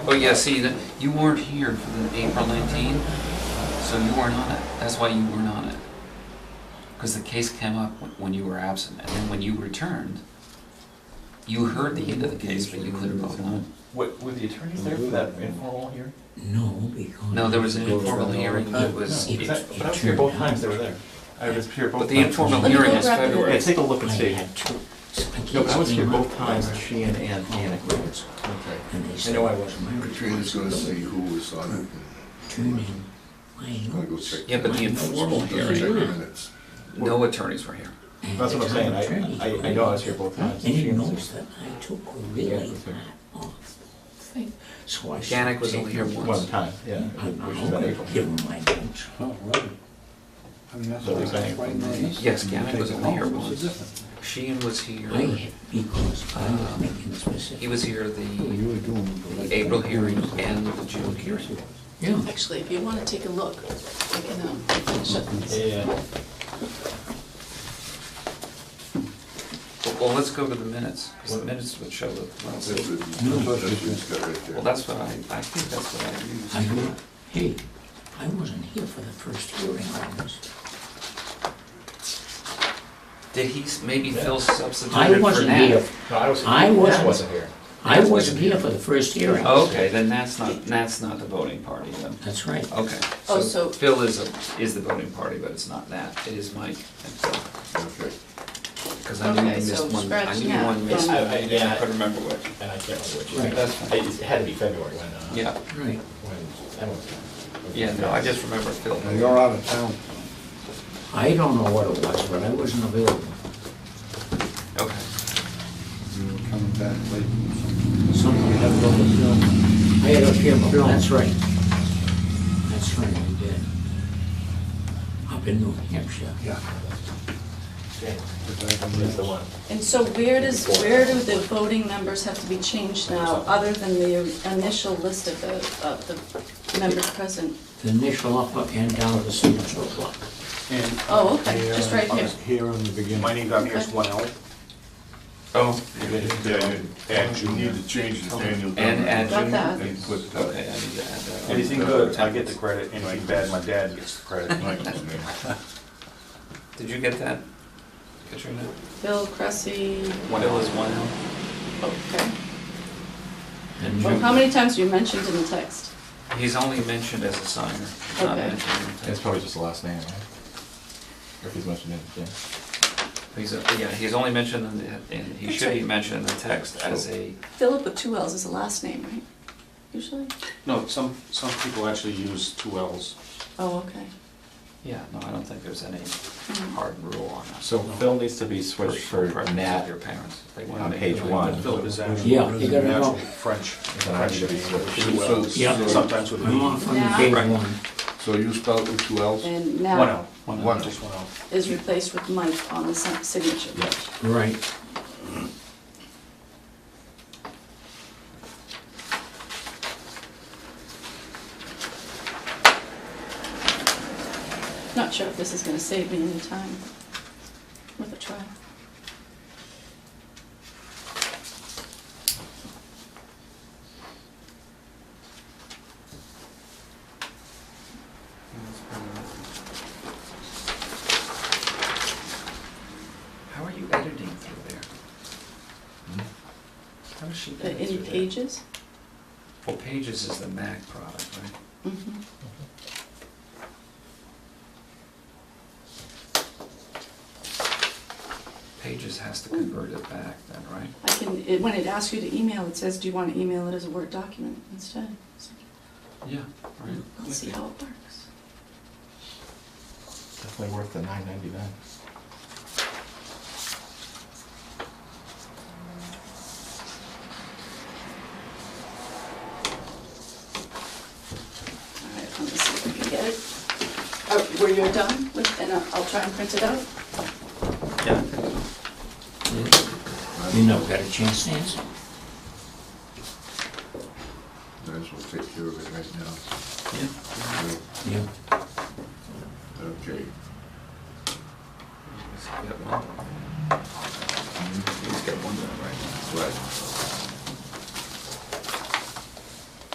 Oh, yeah, see, that- you weren't here for the April 19, so you weren't on it. That's why you weren't on it. Because the case came up wh- when you were absent, and then when you returned, you heard the end of the case, but you couldn't vote on it. Wa- Were the attorneys there for that informal hearing? No, because. No, there was an informal hearing that was, It- Because I- But I was it here both turned times they out- were there. I was here both but times. the informal hearing is Yeah, February. take a look and I see. had two. No, but I was here both times, she and Ann, Ann agreed. Okay. And they I said, know I wasn't. my Katrina's gonna see who was on it. turn in my I'm gonna go notes. check. Yeah, but the informal Check the hearing, minutes. no attorneys were here. and That's the what I'm saying, I- town attorney I- I know I was here both times. Any notes that I took were really was there. part of the thing. So I. Janik was only here started One once. time, yeah, taking which my is that April. own- Give them my notes. Oh, right. I mean, that's So what I it's was like- writing on this. Yes, and you Gavin take was it only off, here it's a once. difference. Sheeen was here, I had, because I was making specific. he was here Well, the you were doing it like- April hearing and the June hearing. Yeah. Actually, if you want to take a look, I can, um, shut this. Yeah, Well, Well, let's go to the minutes, 'cause the minutes would show That's that. it. That's what it's Well, got right that's what I, I think that's what I I go, used. hey, I wasn't here for the first hearing on this. Did he, s- maybe Phil I substituted for wasn't here, Nat? no, I was. I wasn't. Wasn't here. I wasn't here for the first hearing. Oh, Okay, then that's not, Nat's not the voting party then. That's right. Okay. Oh, so- Phil is, a- is the voting party, but it's not Nat, it is Mike and Phil. there. Okay. Because I knew you Okay, so missed one, I scratch knew Nat one missed from- one, I- I- and yeah. I couldn't remember which. And I can't remember which. Right. That's fine. It had to be February when, uh. Yeah, Right. When Emma was there. yeah, no, I just remember Phil. Now, You're out of town. I don't know what it was, but I wasn't available. Okay. You were coming back late. Something had to I had a funeral, that's right. That's right, I did. Up in New Hampshire. Yeah. Yeah, but I don't That's the know. one. And so where does, where do the voting numbers have to be changed now, other than the initial list of the, of the members present? The initial up and down of the signature block. And, Oh, okay, just right uh, here. Here in the beginning. My name down here is Lyle. Oh. And and you need to change the Daniel. And add Got Jim. that. And put, uh, Okay, I need to add that. on. Anything good, I get the credit, anything bad, my dad gets the credit. Michael's name. Did you get that, Katrina? Bill Cressy, One L is one L? okay. And Well, how many times were you mentioned in the text? He's only mentioned as a signer, he's not Okay. mentioned in the It's text. probably just the last name, right? Or if he's mentioned it, yeah. He's, a- yeah, he's only mentioned in the, and he That's should be right. mentioned in the text as a, Philip with two L's is the last name, right? Usually? No, some, some people actually use two Ls. Oh, okay. yeah, no, I don't think there's any Mm. hard rule on that. So Phil needs to be For- switched for preference of Nat, Your parents. if they wanna on make page it like one. that. Philip is actually Yeah, you gotta natural know. French, And I French should be switched. name, two Ls. Yeah. Sometimes with a I'm off V. on the page Right. one. So you spelled with two L's? And One now L, one One L, L. just one L. is replaced with Mike on the si- signature. Yes. Right. Not sure if this is gonna save me any time with a try. How are you editing through there? Hmm? How is she The- editing Any through there? pages? Well, Pages is the Mac product, right? Mhm. Pages has to convert it back then, right? I can, it- when it asks you to email, it says, do you want to email it as a Word document instead? It's like, Yeah. Let's see Right. how it works. Definitely worth the nine ninety-nine. All right, let me see if I can get it. Oh, Were you done with, and I'll- I'll try and print it out? Yeah. You never got a chance to answer. Might as well take care of it right now. Yeah. Yeah. Okay. He's got one. He's got one there, right? Right.